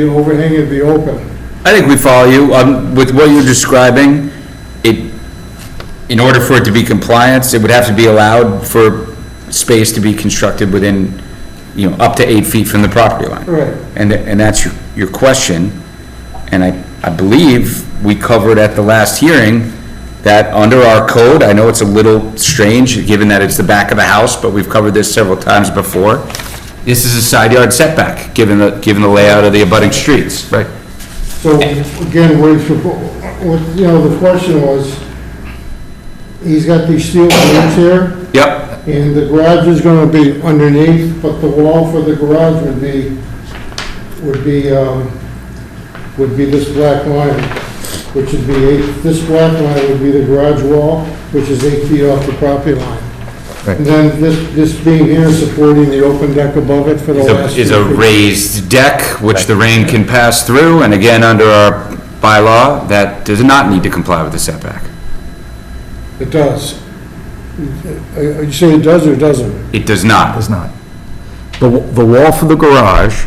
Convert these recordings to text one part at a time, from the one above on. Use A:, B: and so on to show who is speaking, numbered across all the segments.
A: The overhang would be open.
B: I think we follow you. Um, with what you're describing, it, in order for it to be compliance, it would have to be allowed for space to be constructed within, you know, up to eight feet from the property line.
A: Right.
B: And, tha- and that's your, your question. And I, I believe we covered at the last hearing that under our code, I know it's a little strange, given that it's the back of the house, but we've covered this several times before. This is a side yard setback, given the, given the layout of the abutting streets. Right.
A: So again, what, he's- what, you know, the question was, he's got these steel beams here,
B: Yep.
A: and the garage is gonna be underneath, but the wall for the garage would be, would be, um, would be this black line, which would be eight, this black line would be the garage wall, which is eight feet off the property line.
C: Right.
A: And then this, this beam here supporting the open deck above it for the
B: is a-
A: last.
B: is
A: two
B: a
A: feet.
B: raised deck, which the rain can pass through, and again, under our bylaw, that does not need to comply with the setback.
A: It does. Uh, You say it does or doesn't?
B: It does not.
C: Does not. The, w- the wall for the garage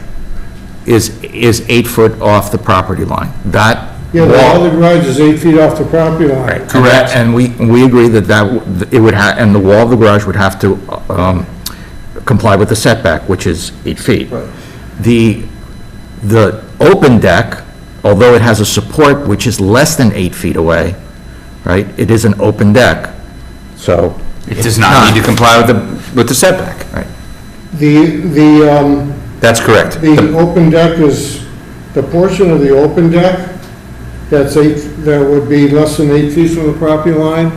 C: is, is eight foot off the property line. That
A: Yeah, the wall of
C: wall.
A: the garage is eight feet off the property line.
C: Right, Correct. And we, we agree that that, w- it would ha, and the wall of the garage would have to, um, comply with the setback, which is eight feet.
A: Right.
C: The, the open deck, although it has a support which is less than eight feet away, right, it is an open deck, so.
B: It does not need to comply with the, with the setback.
C: Right.
A: The, the, um,
B: That's correct.
A: the
B: The-
A: open deck is, the portion of the open deck that's eight, that would be less than eight feet from the property line,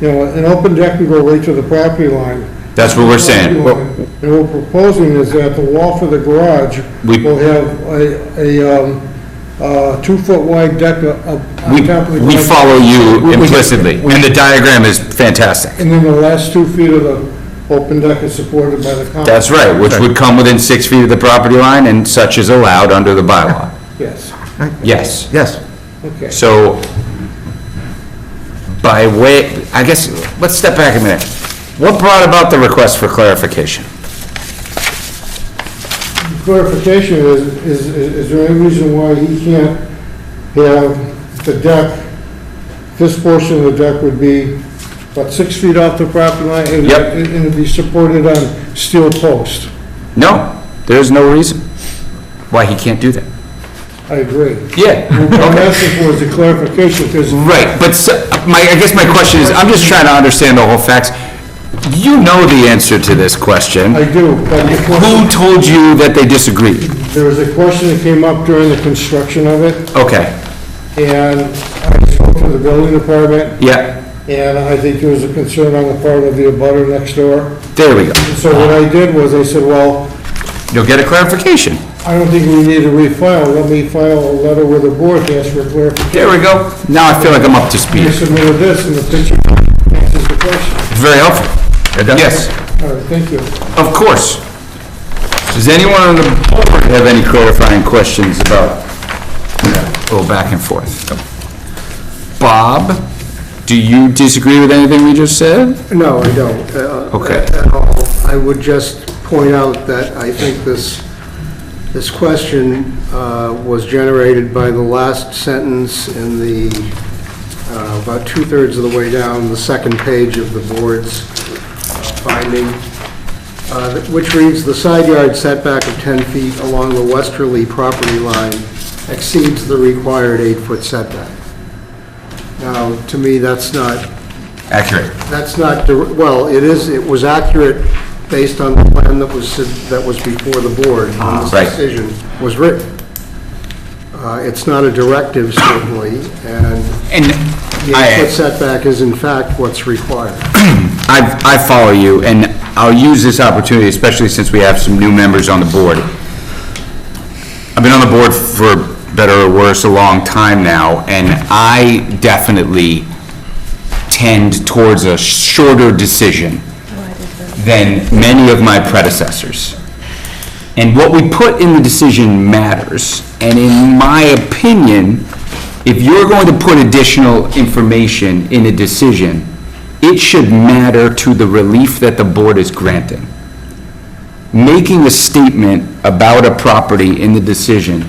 A: you know, an open deck can go right to the property line.
B: That's what we're saying.
A: And what we're proposing is that the wall for the garage
B: We-
A: will have a, a, um, uh, two-foot wide deck up
B: We,
A: on top of the.
B: we
A: garage.
B: follow you
C: we-
B: implicitly, and the diagram is fantastic.
A: And then the last two feet of the open deck is supported by the column.
B: That's right, which would come within six feet of the property line, and such is allowed under the bylaw.
A: Yes,
B: Yes.
C: Yes.
A: okay.
B: So, by way, I guess, let's step back a minute. What brought about the request for clarification?
A: Clarification is, is, is there any reason why he can't have the deck, this portion of the deck would be, what, six feet off the property line? and-
B: Yep.
A: And it'd be supported on steel post.
B: No, there's no reason why he can't do that.
A: I agree. What I'm
B: Yeah.
A: asking for is a clarification, because
B: Right, but so- my, I guess my question is, I'm just trying to understand the whole facts. You know the answer to this question.
A: I do, but the
B: Who
A: question-
B: told you that they disagreed?
A: there was a question that came up during the construction of it,
B: Okay,
A: and I spoke to the building department,
B: yeah,
A: and I think there was a concern on the part of the abutter next door.
B: there we go.
A: So what I did was, I said, well,
B: You'll get a clarification.
A: I don't think we need to refile, let me file a letter with the board to ask for clarification.
B: There we go. Now I feel like I'm up to
A: I
B: speed.
A: submitted this, and the picture answers the question.
B: Very helpful. Yes.
A: All right, thank you.
B: Of course. Does anyone on the board have any clarifying questions about, go back and forth? Bob, do you disagree with anything we just said?
D: No, I don't. uh,
B: Okay.
D: At all. I would just point out that I think this, this question uh, was generated by the last sentence in the, uh, about two-thirds of the way down, the second page of the board's uh, finding, uh, which reads, "The side yard setback of 10 feet along the westerly property line exceeds the required eight-foot setback." Now, to me, that's not
B: Accurate.
D: that's not, dir- well, it is, it was accurate based on the plan that was, that was before the board when
B: Right.
D: this decision was written. Uh, It's not a directive certainly, and
B: And
D: the eight-foot
B: I,
D: setback is in fact what's required.
B: I I follow you, and I'll use this opportunity, especially since we have some new members on the board. I've been on the board for better or worse a long time now, and I definitely tend towards a shorter decision than many of my predecessors. And what we put in the decision matters. And in my opinion, if you're going to put additional information in a decision, it should matter to the relief that the board is granting making a statement about a property in the decision